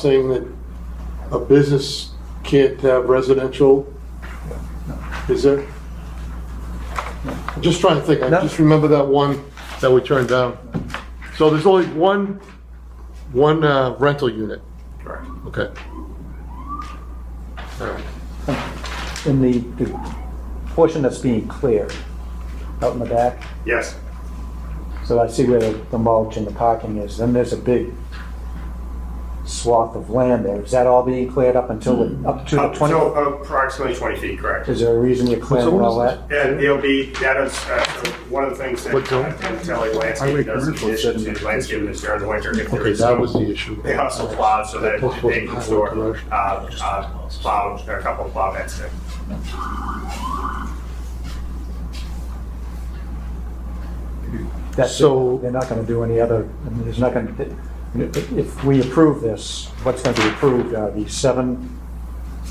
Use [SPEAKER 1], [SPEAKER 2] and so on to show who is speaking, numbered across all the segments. [SPEAKER 1] saying that a business can't have residential? Is there? I'm Just trying to think, I
[SPEAKER 2] No.
[SPEAKER 1] just remember that one that we turned down. So there's only one, one uh, rental unit? Correct. Okay.
[SPEAKER 2] in the, the portion that's being cleared out in the back.
[SPEAKER 3] Yes.
[SPEAKER 2] So I see where the the mulch and the parking is, then there's a big swath of land there. Is that all being cleared up until, the- up to
[SPEAKER 1] Mm.
[SPEAKER 2] the
[SPEAKER 3] Up to
[SPEAKER 2] 20?
[SPEAKER 3] Uh, approximately 20 feet, correct.
[SPEAKER 2] Is there a reason you're clearing
[SPEAKER 1] what
[SPEAKER 2] all
[SPEAKER 1] is
[SPEAKER 2] that?
[SPEAKER 3] And it'll be, that is, uh, so one of the things that uh,
[SPEAKER 1] What zone?
[SPEAKER 3] Pentelli Landscape does in addition to landscaping is during the winter. if there
[SPEAKER 1] Okay,
[SPEAKER 3] is
[SPEAKER 1] that
[SPEAKER 3] no-
[SPEAKER 1] was the issue.
[SPEAKER 3] They also plow so that
[SPEAKER 1] That
[SPEAKER 3] they can
[SPEAKER 1] was
[SPEAKER 3] store,
[SPEAKER 1] commercial.
[SPEAKER 3] uh, uh, plow, a couple of plow beds there.
[SPEAKER 2] That's it.
[SPEAKER 1] So-
[SPEAKER 2] They're not gonna do any other, I mean, there's not gonna, if we approve this, what's gonna be approved are the seven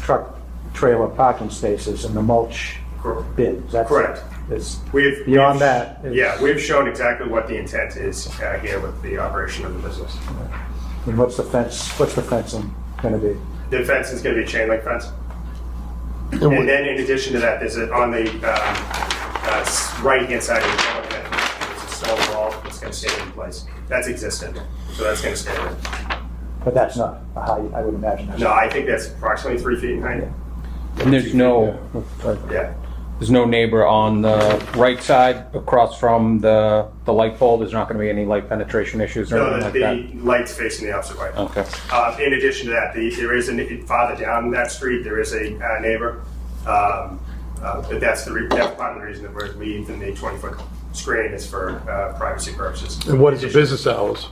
[SPEAKER 2] truck trailer parking spaces and the mulch
[SPEAKER 3] Cor-
[SPEAKER 2] bins. That's-
[SPEAKER 3] Correct.
[SPEAKER 2] It's
[SPEAKER 3] We've.
[SPEAKER 2] Beyond
[SPEAKER 3] we've-
[SPEAKER 2] that, it's-
[SPEAKER 3] Yeah, we've shown exactly what the intent is uh, here with the operation of the business.
[SPEAKER 2] And what's the fence, what's the fencing gonna be?
[SPEAKER 3] The fence is going to be a chain link fence.
[SPEAKER 1] And
[SPEAKER 3] And
[SPEAKER 1] we-
[SPEAKER 3] then in addition to that, there's a, on the, um, uh, s- right-hand side of the building, there's a stone wall that's gonna stay in place. That's existent, so that's gonna stay there.
[SPEAKER 2] But that's not a height, I would imagine. that's-
[SPEAKER 3] No, I think that's approximately three feet in height.
[SPEAKER 4] And there's no,
[SPEAKER 3] Yeah,
[SPEAKER 4] there's no neighbor on the right side across from the, the light pole. There's not going to be any light penetration issues or
[SPEAKER 3] no,
[SPEAKER 4] anything
[SPEAKER 3] the,
[SPEAKER 4] like that.
[SPEAKER 3] the light's facing the opposite way.
[SPEAKER 4] Okay.
[SPEAKER 3] Uh, in addition to that, the, there is a, farther down that street, there is a uh, neighbor. Um, uh, but that's the, re- that's part of the reason that we're leaving the twenty-foot screen is for, uh, privacy purposes.
[SPEAKER 1] and what is the business hours?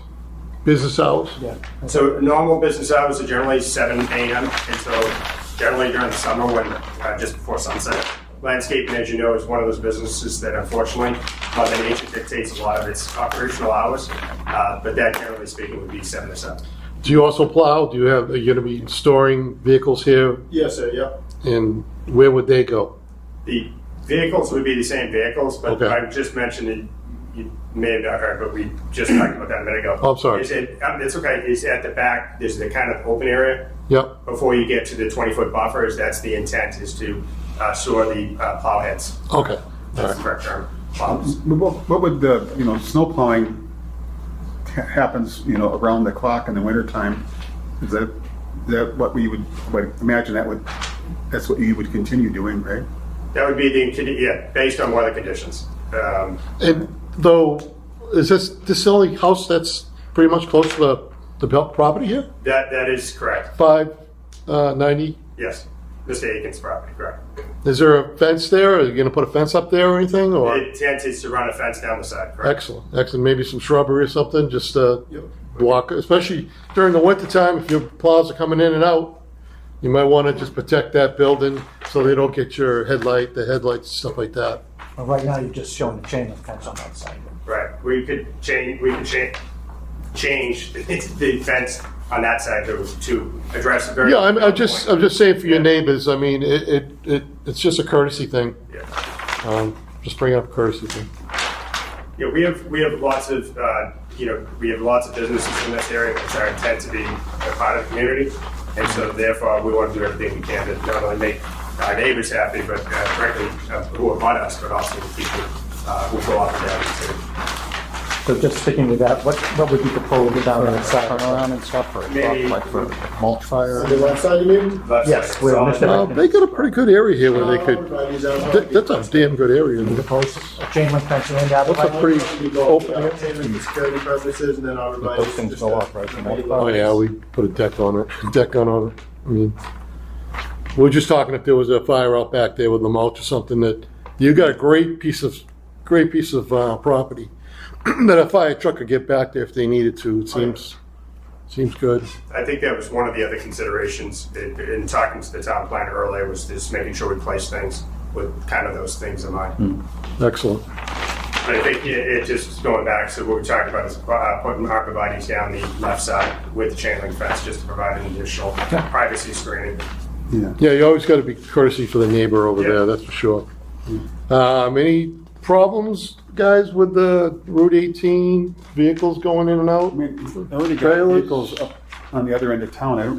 [SPEAKER 1] Business hours?
[SPEAKER 2] Yeah.
[SPEAKER 3] So normal business hours are generally seven AM until generally during the summer when, uh, just before sunset. Landscaping, as you know, is one of those businesses that unfortunately, Mother Nature dictates a lot of its operational hours. Uh, But that generally speaking would be seven to seven.
[SPEAKER 1] Do you also plow? Do you have, are you gonna be storing vehicles here?
[SPEAKER 3] Yes, sir, yep.
[SPEAKER 1] And where would they go?
[SPEAKER 3] The vehicles would be the same vehicles, but
[SPEAKER 1] Okay.
[SPEAKER 3] I just mentioned that you may have not heard, but we just talked about that a minute ago.
[SPEAKER 1] Oh, I'm sorry.
[SPEAKER 3] It's, at- um, it's okay, it's at the back, there's the kind of open area.
[SPEAKER 1] Yep,
[SPEAKER 3] before you get to the 20-foot buffers, that's the intent, is to uh, store the uh, plow heads.
[SPEAKER 1] okay, all
[SPEAKER 3] That's the
[SPEAKER 1] right.
[SPEAKER 3] correct term, plows.
[SPEAKER 5] But What what would the, you know, snow plowing ha- happens, you know, around the clock in the wintertime? Is that, is that what we would, would imagine that would, that's what you would continue doing, right?
[SPEAKER 3] That would be the, condi- yeah, based on weather conditions. Um,
[SPEAKER 1] And though, is this, this the only house that's pretty much close to the, the belt property here?
[SPEAKER 3] That, that is correct,
[SPEAKER 1] Five, uh, ninety?
[SPEAKER 3] yes. Mr. Aiken's property, correct.
[SPEAKER 1] Is there a fence there? Are you gonna put a fence up there or anything,
[SPEAKER 3] The
[SPEAKER 1] or?
[SPEAKER 3] intent is to run a fence down the side, correct?
[SPEAKER 1] Excellent, excellent, maybe some shrubbery or something, just to block, especially during the winter time, if your plows are coming in and out, you might wanna just protect that building so they don't get your headlight, the headlights, stuff like that.
[SPEAKER 2] Well, Right now, you're just showing the chain link fence on that side.
[SPEAKER 3] Right, we could change, we could change, change the fence on that side to, to address a very.
[SPEAKER 1] Yeah, I'm, I'm just, I'm just saying for your
[SPEAKER 3] Yeah.
[SPEAKER 1] neighbors, I mean, it, it, it, it's just a courtesy thing,
[SPEAKER 3] Yeah.
[SPEAKER 1] um, just bringing up a courtesy thing.
[SPEAKER 3] Yeah, we have, we have lots of, uh, you know, we have lots of businesses in this area which are intent to be a part of the community. And so therefore, we want to do everything we can to not only make our neighbors happy, but uh, frankly, uh, who are on us, but also the people uh, who go up and down the city.
[SPEAKER 2] So just sticking with that, what, what would be proposed down on the side?
[SPEAKER 6] and stuff for
[SPEAKER 3] Maybe-
[SPEAKER 6] like for mulch fire.
[SPEAKER 7] The left side, you mean?
[SPEAKER 3] But-
[SPEAKER 2] Yes, we're on this side.
[SPEAKER 1] Uh, they got a pretty good area here where they could,
[SPEAKER 7] Right, is that how
[SPEAKER 1] that- that's a damn good area.
[SPEAKER 2] Propose a chain link fence and out of
[SPEAKER 1] That's a pretty
[SPEAKER 7] You go
[SPEAKER 1] open
[SPEAKER 7] for
[SPEAKER 1] area.
[SPEAKER 7] entertainment and security purposes, and then arborvitae.
[SPEAKER 6] Those things go up, right?
[SPEAKER 1] Oh, yeah, we put a deck on it, deck gun on it, I mean, we we're just talking if there was a fire out back there with the mulch or something that, you got a great piece of, great piece of, uh, property that a fire truck could get back there if they needed to, it seems, seems good.
[SPEAKER 3] I think that was one of the other considerations in in talking to the town planner earlier, was just making sure we place things with kind of those things in mind.
[SPEAKER 1] Excellent.
[SPEAKER 3] But I think it, it just going back to what we talked about is uh, putting arborvitae's down the left side with the chain link fence just to provide an additional privacy screening.
[SPEAKER 5] Yeah.
[SPEAKER 1] Yeah, you always got to be courtesy for the neighbor over
[SPEAKER 3] Yeah.
[SPEAKER 1] there, that's for sure. Um, any problems, guys, with the Route 18 vehicles going in and
[SPEAKER 5] I
[SPEAKER 1] out?
[SPEAKER 5] mean, already got
[SPEAKER 1] Trailers.
[SPEAKER 5] vehicles up on the other end of town, I don't